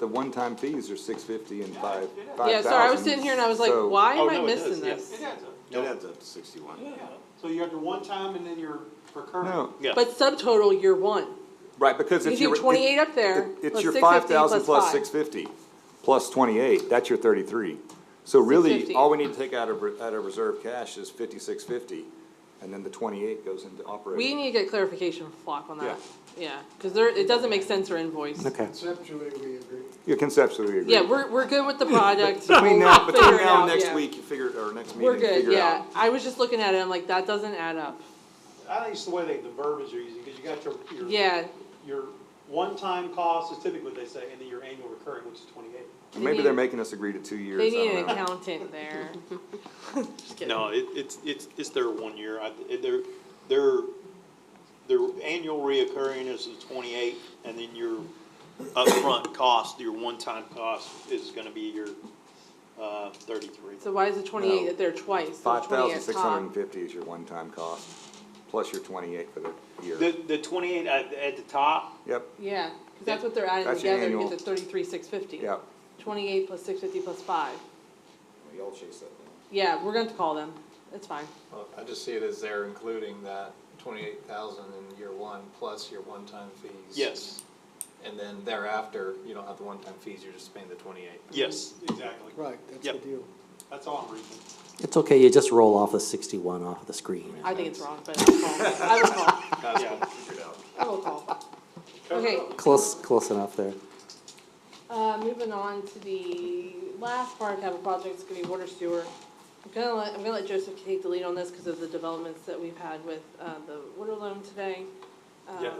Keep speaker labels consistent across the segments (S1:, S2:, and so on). S1: The one-time fees are six fifty and five, five thousand.
S2: Yeah, sorry, I was sitting here and I was like,
S1: so-
S2: why
S3: Oh,
S2: am I
S3: no, it does,
S2: missing
S3: yeah.
S2: this?
S4: It adds up.
S1: It adds up to sixty-one.
S4: So you have your one time and then your recurring.
S1: No,
S3: Yeah.
S2: But subtotal year one,
S1: right, because
S2: you
S1: it's your.
S2: do
S1: it-
S2: twenty-eight up there,
S1: it- It's
S2: plus
S1: your
S2: six
S1: five
S2: fifty
S1: thousand
S2: plus
S1: plus
S2: five.
S1: six fifty, plus twenty-eight, that's your thirty-three. So really,
S2: 650.
S1: all we need to take out of, re- out of reserve cash is fifty-six fifty, and then the twenty-eight goes into
S2: We
S1: operating.
S2: need to get clarification from Flock on that, yeah, cause there, it doesn't make sense or invoice.
S1: Okay,
S5: Conceptually, we agree.
S1: you conceptually agree.
S2: Yeah, we're, we're good with the project.
S1: Between now,
S2: We'll
S1: between
S2: figure it
S1: now
S2: out,
S1: and next
S2: yeah.
S1: week, you figure, or next meeting,
S2: We're
S1: figure it out.
S2: good, yeah, I was just looking at it, I'm like, that doesn't add up,
S4: I think it's the way they, the verbiage are using, because you got your, your.
S2: yeah,
S4: Your one-time cost is typically what they say, and then your annual recurring, which is twenty-eight.
S1: And Maybe they're making us agree to two years,
S2: they
S1: I
S2: need
S1: don't
S2: an
S1: know.
S2: accountant there. Just kidding.
S3: No, it, it's, it's, it's their one year, I, it- their, their, their annual reoccurring is the twenty-eight, and then your upfront cost, your one-time cost is gonna be your, uh, thirty-three.
S2: So why is the twenty-eight
S1: No.
S2: up there twice, so the
S1: Five
S2: 28
S1: thousand
S2: at
S1: six hundred and
S2: top?
S1: fifty is your one-time cost, plus your twenty-eight for the year.
S3: The, the twenty-eight at, at the top,
S1: Yep,
S2: Yeah, cause that's what they're adding
S1: That's your
S2: together, to
S1: annual.
S2: get the thirty-three, six fifty.
S1: yep.
S2: Twenty-eight plus six fifty plus five,
S1: Y'all chase that down.
S2: yeah, we're going to call them, it's fine,
S6: Well, I just see it as they're including that twenty-eight thousand in year one, plus your one-time fees.
S3: yes,
S6: And then thereafter, you don't have the one-time fees, you're just paying the twenty-eight.
S3: yes,
S4: Exactly.
S5: Right, that's
S3: Yep.
S5: the deal.
S4: That's all I'm reading.
S7: It's okay, you just roll off the sixty-one off the screen.
S2: I think it's wrong, but I'll call, I will call,
S6: That's
S3: Yeah.
S6: what we figured out.
S2: I will call. Okay,
S7: Close, close enough there.
S2: Uh, moving on to the last part, capital projects, gonna be water sewer. I'm gonna let, I'm gonna let Joseph take the lead on this because of the developments that we've had with, uh, the water loan today.
S3: Yeah.
S2: Um,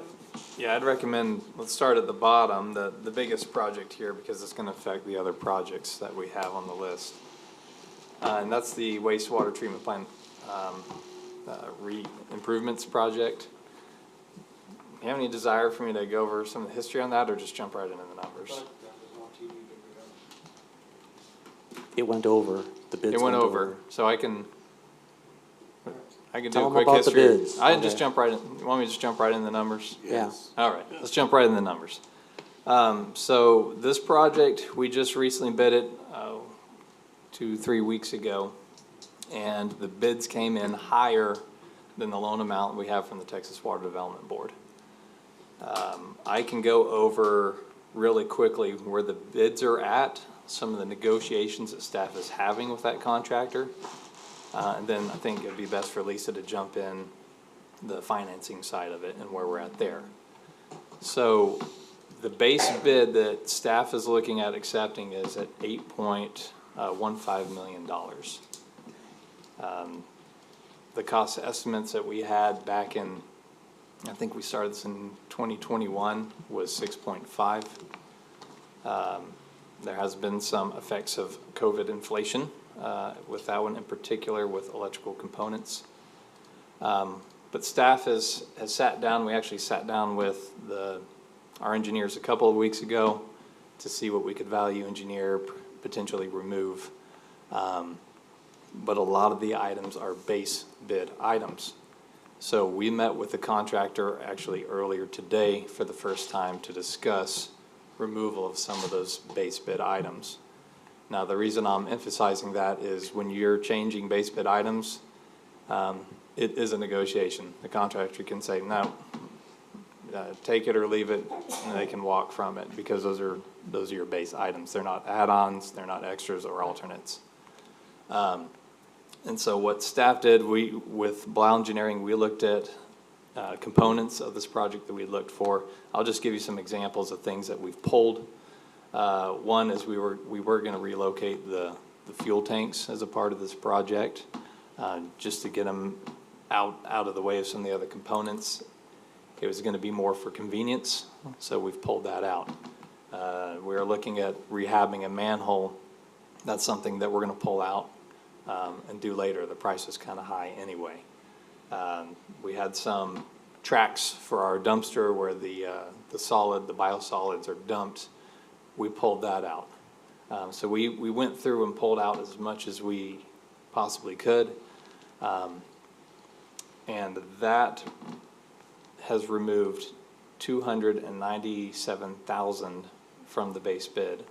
S6: Yeah, I'd recommend, let's start at the bottom, the, the biggest project here, because it's gonna affect the other projects that we have on the list. Uh, and that's the wastewater treatment plant, um, uh, re, improvements project. You have any desire for me to go over some of the history on that, or just jump right into the numbers?
S7: It went over, the bids
S6: It went over, so I can, I can do
S7: Tell
S6: a
S7: 'em
S6: quick
S7: about the
S6: history.
S7: bids.
S6: I can just
S7: Okay.
S6: jump right in, you want me to just jump right in the numbers?
S7: Yeah,
S6: All right, let's jump right in the numbers. Um, so this project, we just recently bid it, oh, two, three weeks ago. And the bids came in higher than the loan amount we have from the Texas Water Development Board. Um, I can go over really quickly where the bids are at, some of the negotiations that staff is having with that contractor. Uh, and then I think it'd be best for Lisa to jump in the financing side of it and where we're at there. So the base bid that staff is looking at accepting is at eight point uh, one five million dollars. Um, The cost estimates that we had back in, I think we started this in twenty twenty-one, was six point five. Um, There has been some effects of COVID inflation, uh, with that one in particular with electrical components. But staff has, has sat down, we actually sat down with the, our engineers a couple of weeks ago to see what we could value engineer, potentially remove. Um, But a lot of the items are base bid items. So we met with the contractor actually earlier today for the first time to discuss removal of some of those base bid items. Now, the reason I'm emphasizing that is when you're changing base bid items, um, it is a negotiation. The contractor can say, no, uh, take it or leave it, and they can walk from it, because those are, those are your base items. They're not add-ons, they're not extras or alternates. Um, And so what staff did, we, with Blau Engineering, we looked at uh, components of this project that we looked for. I'll just give you some examples of things that we've pulled. Uh, One is we were, we were gonna relocate the, the fuel tanks as a part of this project, uh, just to get them out, out of the way of some of the other components. It was gonna be more for convenience, so we've pulled that out. Uh, We are looking at rehabbing a manhole. That's something that we're gonna pull out um, and do later. The price is kinda high anyway. Um, We had some tracks for our dumpster where the, uh, the solid, the biosolids are dumped. We pulled that out. Um, So we, we went through and pulled out as much as we possibly could. Um, And that has removed two hundred and ninety-seven thousand from the base bid.